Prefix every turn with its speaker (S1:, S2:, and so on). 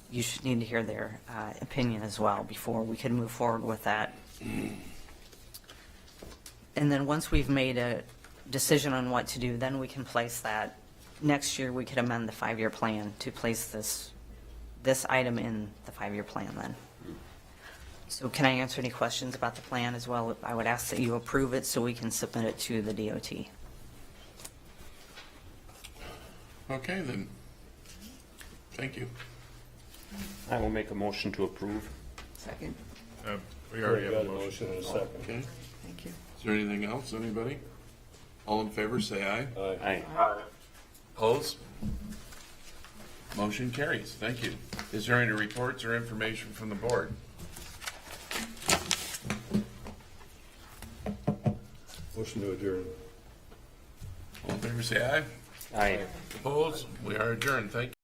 S1: you should need to hear their uh, opinion as well before we can move forward with that. And then once we've made a decision on what to do, then we can place that. Next year, we could amend the five-year plan to place this, this item in the five-year plan then. So can I answer any questions about the plan as well? I would ask that you approve it so we can submit it to the DOT.
S2: Okay, then. Thank you.
S3: I will make a motion to approve.
S4: Second,
S5: Uh, We already have
S6: Got
S5: a motion.
S6: and a second.
S2: Okay.
S4: thank you.
S2: Is there anything else, anybody? All in favor, say aye.
S3: Aye.
S2: Opposed? Motion carries. Thank you. Is there any reports or information from the board?
S6: Motion to adjourn.
S2: All in favor, say aye.
S3: Aye.
S2: Opposed? We are adjourned. Thank you.